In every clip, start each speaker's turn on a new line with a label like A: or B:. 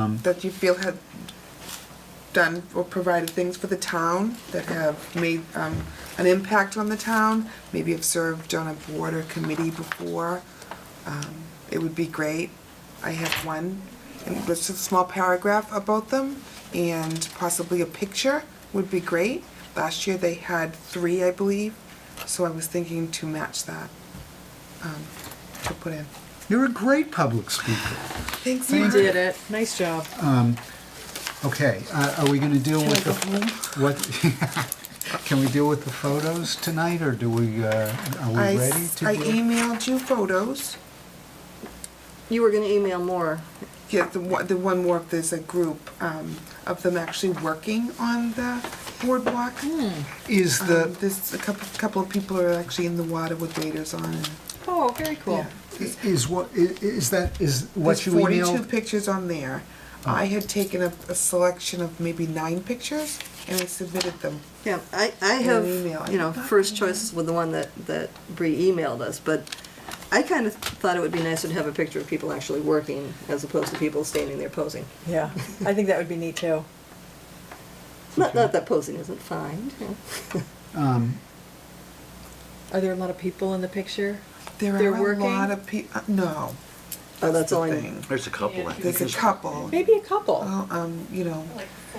A: um,
B: that you feel have done or provided things for the town that have made um, an impact on the town, maybe have served on a board or committee before. Um, It would be great. I have one, and just a small paragraph about them, and possibly a picture would be great. Last year, they had three, I believe, so I was thinking to match that, um, to put in.
A: you're a great public speaker.
B: Thanks,
C: You
B: Mark.
C: did it. Nice job.
A: Okay, uh, are we going to deal with the, what, can we deal with the photos tonight, or do we, uh, are we
B: I,
A: ready
B: s-
A: to
B: I
A: deal?
B: emailed you photos.
C: You were gonna email more.
B: Yeah, the one, the one more, there's a group um, of them actually working on the boardwalk.
C: Hmm.
A: Is
B: Um,
A: the,
B: There's a couple, couple of people are actually in the water with waders on. and-
C: Oh, very cool.
B: yeah.
A: is what, i- is that, is what
B: There's
A: you
B: Um, Forty-two
A: emailed?
B: pictures on there. I had taken a, a selection of maybe nine pictures and I submitted them.
D: Yeah, I, I
B: an
D: have,
B: email.
D: you know, first choice with the one that, that Bree emailed us, but I kind of thought it would be nicer to have a picture of people actually working as opposed to people standing there posing.
C: Yeah, I think that would be neat too.
D: Not, not that posing isn't fine. you know.
A: Um,
C: Are there a lot of people in the picture?
B: There
C: They're
B: are a
C: working?
B: lot of peo, uh, no.
D: Oh, that's
B: the
D: all I
B: thing.
D: know.
E: There's a couple, I think.
B: There's a couple.
C: Maybe a couple.
B: Well, um, you know,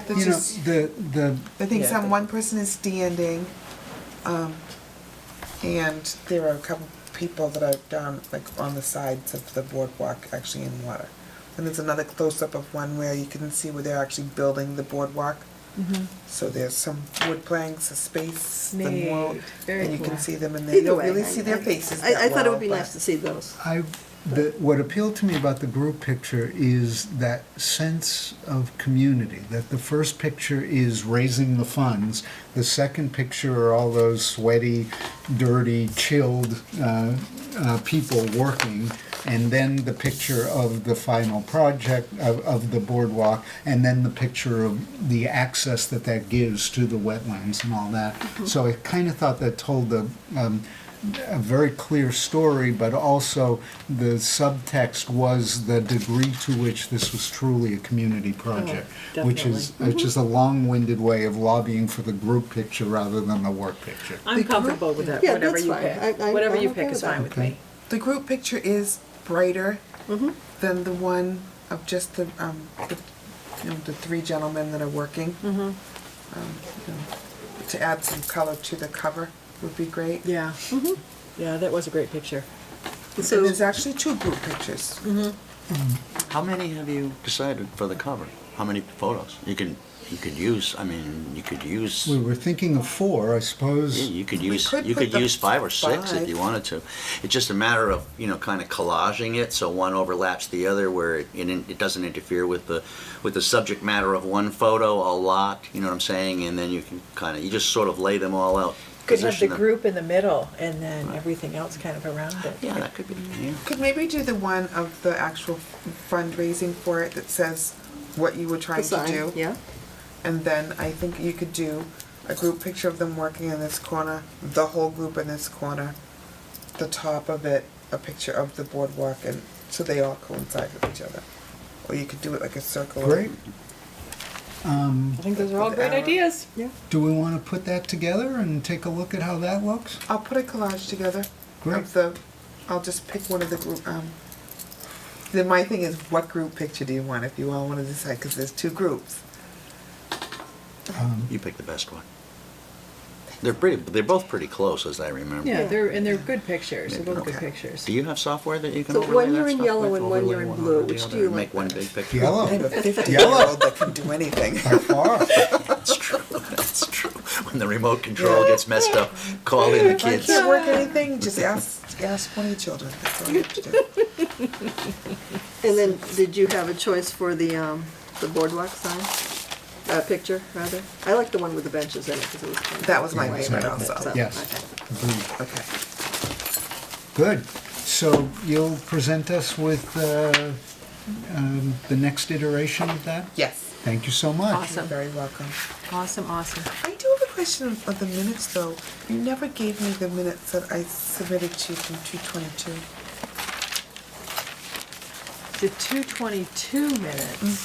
B: there's
A: You know,
B: just.
A: the, the,
B: I think
C: Yeah, I
B: some,
C: think-
B: one person is standing, um, and there are a couple people that are down, like, on the sides of the boardwalk, actually in water. And there's another close-up of one where you can see where they're actually building the boardwalk.
D: Mm-hmm.
B: So there's some wood planks, a space, the wall,
C: Neat. Very
B: and you can
C: cool.
B: see them, and they
D: Either
B: don't
D: way.
B: really
D: I-
B: see their
D: I-
B: faces
D: I, I
B: that
D: thought it
B: well,
D: would be
B: but-
D: nice to see those.
A: I, the, what appealed to me about the group picture is that sense of community, that the first picture is raising the funds, the second picture are all those sweaty, dirty, chilled uh, uh, people working, and then the picture of the final project, of, of the boardwalk, and then the picture of the access that that gives to the wetlands and all that. So I kind of thought that told the, um, a very clear story, but also the subtext was the degree to which this was truly a community project,
C: Oh,
A: which is which is a long-winded way of lobbying for the group picture rather than the work picture.
C: I'm comfortable with that,
D: Yeah,
C: whatever
D: that's
C: you
D: fine.
C: pick.
D: I- I-
C: Whatever
D: I'm
C: you
D: okay
C: pick is
D: with that.
C: fine with
A: Okay.
C: me.
B: The group picture is brighter
D: Mm-hmm.
B: than the one of just the, um, the, you know, the three gentlemen that are working.
D: Mm-hmm.
B: Um, you know, To add some color to the cover would be great.
C: Yeah. Yeah, that was a great picture.
B: And
D: So- Mm-hmm.
B: there's actually two group pictures.
E: How many have you decided for the cover? How many photos? You can, you could use, I mean, you could use,
A: We
E: yeah,
A: were thinking of four, I suppose.
E: you could use,
B: could
E: you
B: put
E: could
B: the
E: use five or six
B: five.
E: if you wanted to. It's just a matter of, you know, kind of collaging it so one overlaps the other where it, it in- it doesn't interfere with the, with the subject matter of one photo a lot, you know what I'm saying? And then you can kind of, you just sort of lay them all out.
C: Could have the
E: position them.
C: group in the middle and then everything else kind of around it.
E: Yeah, that could be, yeah.
B: Could maybe do the one of the actual fundraising for it that says what you were trying
D: The
B: to
D: sign,
B: do.
D: yeah.
B: And then I think you could do a group picture of them working in this corner, the whole group in this corner, the top of it, a picture of the boardwalk, and so they all coincide with each other. Or you could do it like a circle.
A: Great. Um,
C: I think those are all great
B: Uh,
C: ideas.
A: do we want to put that together and take a look at how that looks?
B: I'll put a collage together
A: Great.
B: of the. I'll just pick one of the group. Um, then my thing is, what group picture do you want? If you all want to decide, because there's two groups.
A: Um,
E: You pick the best one. They're pretty, they're both pretty close as I remember.
C: Yeah, they're, and they're good pictures. They're both good
B: Okay.
C: pictures.
E: Do you have software that you can
D: So
E: overlay
D: one
E: that
D: you're in
E: stuff
D: yellow
E: with,
D: and one
E: overlay
D: you're in
E: over
D: blue.
E: the
D: Which
E: other,
D: do you
E: and Make
D: like
E: one
D: better?
E: big picture.
B: I have
A: Yellow,
B: a 50 year old that can do anything.
A: by far.
E: That's true, that's true. When the remote control gets messed up, call in the
B: If I
E: kids.
B: can't work anything, just ask ask one of your children. That's all you have to do.
D: And then, did you have a choice for the, um, the boardwalk sign? Uh, picture, rather? I like the one with the benches in it, because it was. kind of-
B: That was my
D: Yeah.
B: favorite
D: So,
B: also.
A: Yes.
D: okay.
A: Agreed.
B: Okay.
A: Good. So you'll present us with uh, um, the next iteration of that?
B: Yes.
A: Thank you so much.
C: Awesome.
B: You're very welcome.
C: Awesome, awesome.
B: I do have a question of the minutes though. You never gave me the minutes that I submitted to you from two twenty-two.
C: The two twenty-two minutes.